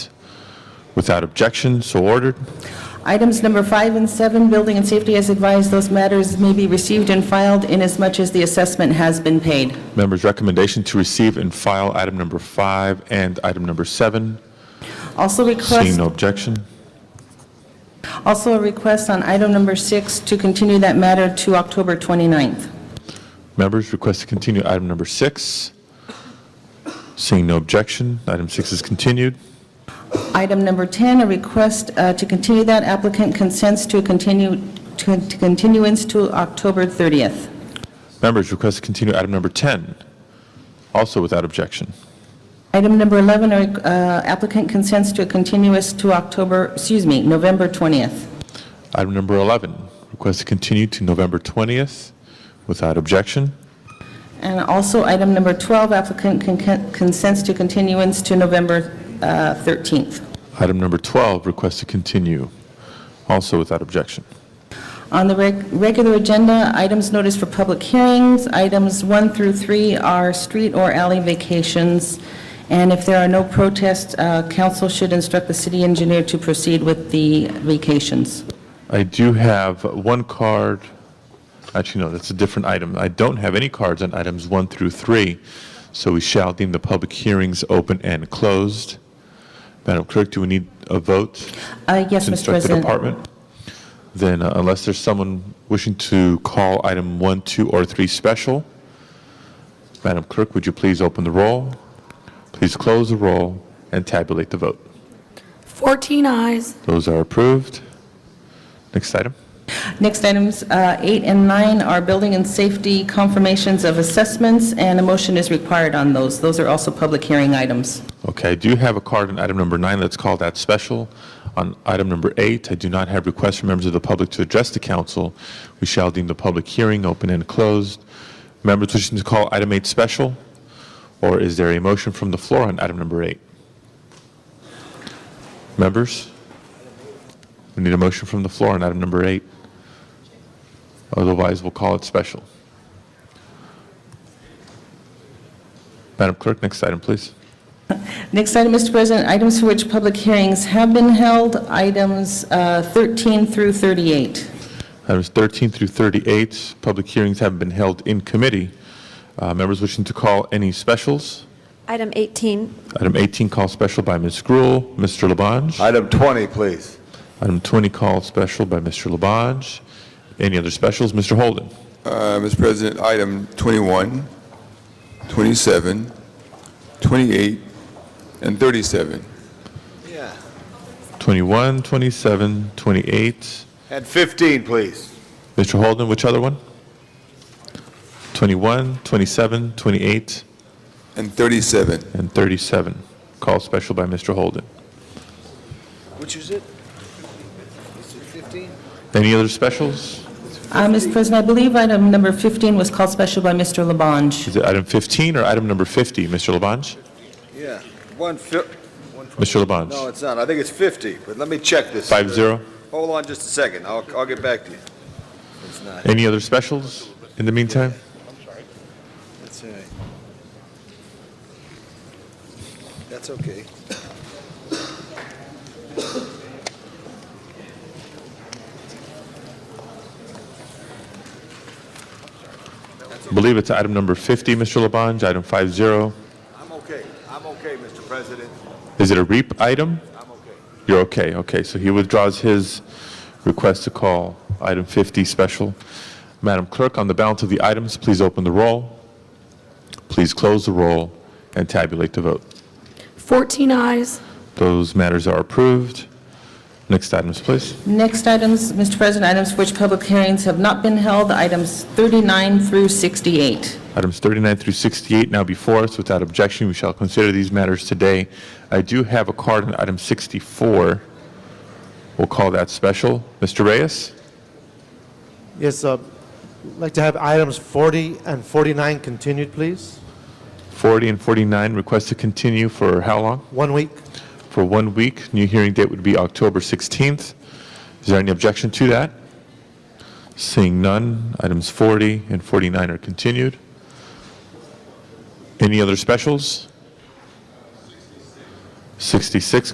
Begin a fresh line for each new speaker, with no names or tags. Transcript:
Without objection, so ordered.
Items number five and seven, Building and Safety has advised those matters may be received and filed inasmuch as the assessment has been paid.
Members' recommendation to receive and file item number five and item number seven.
Also
Seeing
request,
no objection.
also a request on item number six to continue that matter to October 29th.
Members request to continue item number six. Seeing no objection, item six is continued.
Item number 10, a request uh, to continue that applicant consents to continue, to to continuance to October 30th.
Members request to continue item number 10, also without objection.
Item number 11, a, uh, applicant consents to a continuous to October, excuse me, November 20th.
Item number 11, request to continue to November 20th without objection.
And also, item number 12, applicant con- con- consents to continuance to November uh, 13th.
Item number 12, request to continue, also without objection.
On the reg- regular agenda, items noticed for public hearings, items 1 through 3 are street or alley vacations, and if there are no protests, uh, council should instruct the city engineer to proceed with the vacations.
I do have one card, actually, no, that's a different item. I don't have any cards on items one through three, so we shall deem the public hearings open and closed. Madam Clerk, do we need a vote?
Uh, Yes,
to
Mr.
instruct the
President.
department? Then uh, unless there's someone wishing to call item one, two, or three special, Madam Clerk, would you please open the roll? Please close the roll and tabulate the vote.
14 eyes.
Those are approved. Next item.
Next items, uh, 8 and 9 are building and safety confirmations of assessments, and a motion is required on those. Those are also public hearing items.
Okay, I do have a card on item number nine. Let's call that special. On item number eight, I do not have requests from members of the public to address the council. We shall deem the public hearing open and closed. Members wishing to call item eight special, or is there a motion from the floor on item number eight? Members? We need a motion from the floor on item number eight. Otherwise, we'll call it special. Madam Clerk, next item, please.
Next item, Mr. President, items for which public hearings have been held, items uh, 13 through 38.
Items 13 through 38, public hearings have been held in committee. Uh, Members wishing to call any specials?
Item 18,
Item 18, call special by Ms. Gruel. Mr. Labange?
Item 20, please.
Item 20, call special by Mr. Labange. Any other specials? Mr. Holden?
Uh, Mr. President, item 21, 27, 28, and 37.
21, 27, 28.
And 15, please.
Mr. Holden, which other one? 21, 27, 28,
And 37.
and 37. Call special by Mr. Holden.
Which is it? Is it 15?
Any other specials?
Uh, Mr. President, I believe item number 15 was called special by Mr. Labange.
Is it item 15 or item number 50? Mr. Labange?
Yeah, one fif,
Mr. Labange?
no, it's not. I think it's 50, but let me check this.
Five zero.
Hold on just a second. I'll, I'll get back to you. It's not.
Any other specials in the meantime?
That's all right. That's okay.
I believe it's item number 50, Mr. Labange, item five zero.
I'm okay. I'm okay, Mr. President.
Is it a REAP item?
I'm okay.
You're okay, okay. So he withdraws his request to call item 50 special. Madam Clerk, on the balance of the items, please open the roll. Please close the roll and tabulate the vote.
14 eyes.
Those matters are approved. Next items, please.
Next items, Mr. President, items for which public hearings have not been held, items 39 through 68.
Items 39 through 68 now before us. Without objection, we shall consider these matters today. I do have a card on item 64. We'll call that special. Mr. Reyes?
Yes, uh, I'd like to have items 40 and 49 continued, please.
40 and 49, request to continue for how long?
One week.
For one week. New hearing date would be October 16th. Is there any objection to that? Seeing none, items 40 and 49 are continued. Any other specials? 66